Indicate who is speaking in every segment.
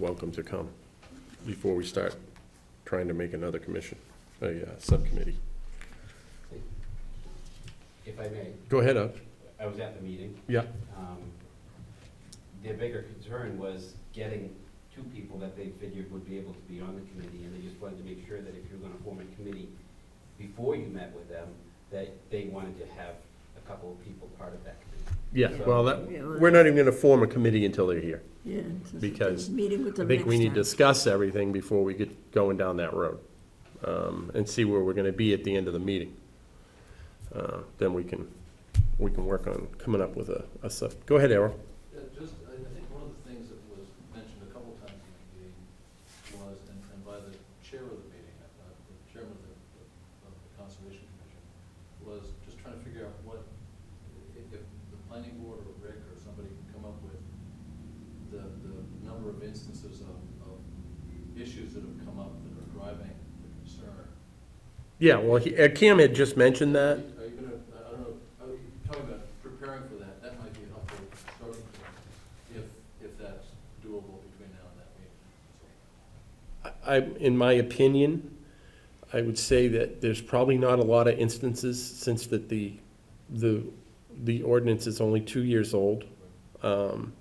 Speaker 1: welcome to come before we start trying to make another commission, a uh, subcommittee.
Speaker 2: If I may,
Speaker 1: Go ahead, Up.
Speaker 2: I was at the meeting.
Speaker 1: Yeah.
Speaker 2: Um, Their bigger concern was getting two people that they figured would be able to be on the committee, and they just wanted to make sure that if you're gonna form a committee, before you met with them, that they wanted to have a couple of people part of that committee.
Speaker 1: Yeah, well, that, we're not even gonna form a committee until they're here.
Speaker 3: Yeah, it's just
Speaker 1: Because
Speaker 3: meeting with
Speaker 1: I
Speaker 3: them
Speaker 1: think we
Speaker 3: next
Speaker 1: need
Speaker 3: time.
Speaker 1: to discuss everything before we get going down that road, um, and see where we're gonna be at the end of the meeting. Uh, Then we can, we can work on coming up with a, a sub, go ahead, Errol.
Speaker 4: Yeah, just, I I think one of the things that was mentioned a couple times in the meeting was, and and by the chair of the meeting, uh, the chairman of the, of the Conservation Commission, was just trying to figure out what, if if the planning board or Rick or somebody can come up with the, the number of instances of, of issues that have come up that are driving the concern.
Speaker 1: Yeah, well, he- uh, Cam had just mentioned that.
Speaker 4: Are you are you gonna, I don't know, are you talking about preparing for that, that might be a helpful starting point, if, if that's doable between now and that meeting.
Speaker 1: I, in my opinion, I would say that there's probably not a lot of instances, since that the, the, the ordinance is only two years old. Um,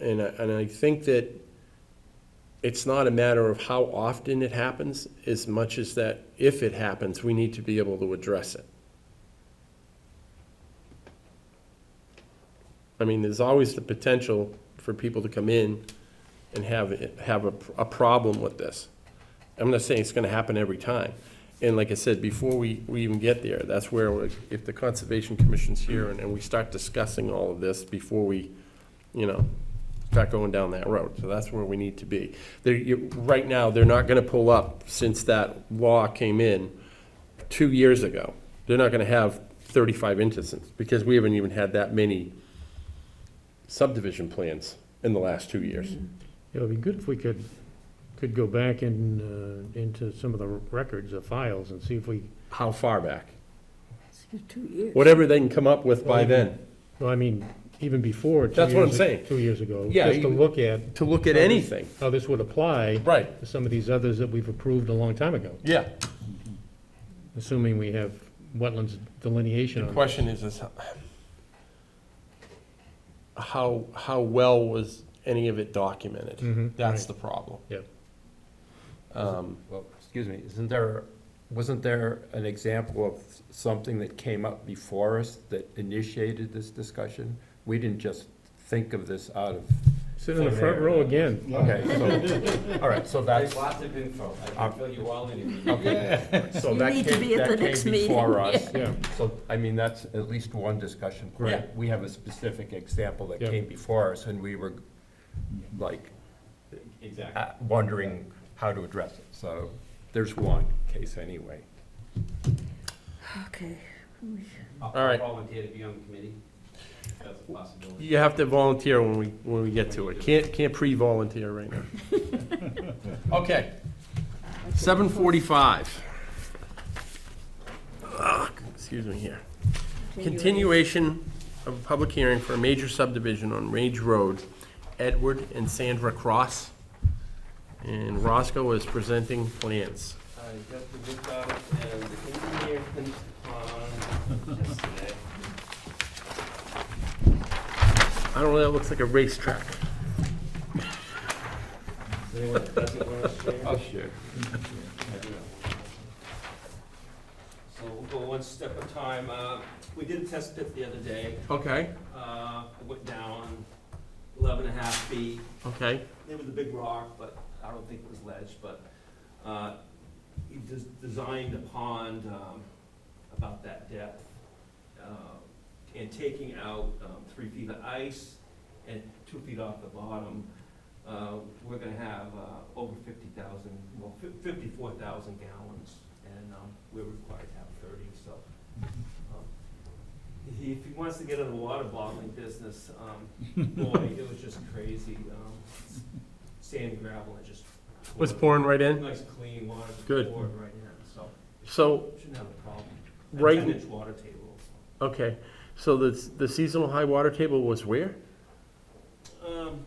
Speaker 1: And I, and I think that it's not a matter of how often it happens, as much as that if it happens, we need to be able to address it. I mean, there's always the potential for people to come in and have, it- have a, a problem with this. I'm not saying it's gonna happen every time. And like I said, before we, we even get there, that's where, we- if the Conservation Commission's here and, and we start discussing all of this before we, you know, start going down that road. So that's where we need to be. They're, you, right now, they're not gonna pull up, since that law came in two years ago, they're not gonna have thirty-five instances, because we haven't even had that many subdivision plans in the last two years.
Speaker 5: It would be good if we could, could go back in, uh, into some of the records or files and see if we,
Speaker 1: How far back?
Speaker 3: It's been Two years.
Speaker 1: Whatever they can come up with by
Speaker 5: Well,
Speaker 1: then,
Speaker 5: well, I mean, even before. two
Speaker 1: That's what I'm
Speaker 5: years-
Speaker 1: saying.
Speaker 5: Two years ago.
Speaker 1: Yeah,
Speaker 5: Just to
Speaker 1: even-
Speaker 5: look at
Speaker 1: to look at anything.
Speaker 5: how this would apply
Speaker 1: Right,
Speaker 5: to some of these others that we've approved a long time ago,
Speaker 1: yeah.
Speaker 5: assuming we have wetlands delineation
Speaker 1: The
Speaker 5: on.
Speaker 1: question is, is how- how, how well was any of it documented?
Speaker 5: Mhm,
Speaker 1: That's
Speaker 5: right.
Speaker 1: the problem.
Speaker 5: Yep.
Speaker 1: Um,
Speaker 6: Well, excuse me, isn't there, wasn't there an example of something that came up before us that initiated this discussion? We didn't just think of this out of,
Speaker 5: Sit in the front row again.
Speaker 6: okay, so, all right, so that's,
Speaker 2: There's lots of info, I
Speaker 6: Um,
Speaker 2: can fill you all in. if you need.
Speaker 6: okay. So
Speaker 3: You
Speaker 6: that
Speaker 3: need to
Speaker 6: came-
Speaker 3: be at
Speaker 6: that
Speaker 3: the
Speaker 6: came
Speaker 3: next meeting,
Speaker 6: Before us,
Speaker 5: Yeah,
Speaker 6: so, I mean, that's at least one discussion point.
Speaker 1: Right.
Speaker 6: We have a specific example that
Speaker 5: Yeah.
Speaker 6: came before us, and we were like,
Speaker 2: Exactly.
Speaker 6: uh, wondering how to address it. So there's one case anyway.
Speaker 3: Okay.
Speaker 2: All
Speaker 1: right.
Speaker 2: Volunteer to be on the committee, that's a possibility.
Speaker 1: You have to volunteer when we, when we get to it. Can't, can't pre-volunteer right now. Okay. Seven forty-five. Excuse me here. Continuation of a public hearing for a major subdivision on Range Road, Edward and Sandra Cross. And Roscoe is presenting plans.
Speaker 2: I got the book out and the engineer comes on yesterday.
Speaker 1: I don't know, that looks like a racetrack.
Speaker 2: Does Anyone that doesn't want to share?
Speaker 6: Oh, sure.
Speaker 2: So we'll go one step at a time. Uh, We did a test pit the other day.
Speaker 1: Okay,
Speaker 2: Uh, It went down 11 and a half feet.
Speaker 1: okay.
Speaker 2: It was a big rock, but I don't think it was ledge, but uh, he des- designed a pond um, about that depth uh, and taking out um, three feet of ice and two feet off the bottom. uh, We're gonna have uh, over 50,000, well, fif- 54,000 gallons, and um, we're required to have 30, so. um, he- If he wants to get in the water bottling business, um, boy, it was just crazy. um, Sand, gravel, and just.
Speaker 1: Was pouring right in?
Speaker 2: Nice clean water. to
Speaker 1: Good.
Speaker 2: pour right in, so
Speaker 1: So
Speaker 2: shouldn't have a problem.
Speaker 1: Right-
Speaker 2: Ten inch water table.
Speaker 1: Okay, so the, the seasonal high water table was where?
Speaker 2: Um,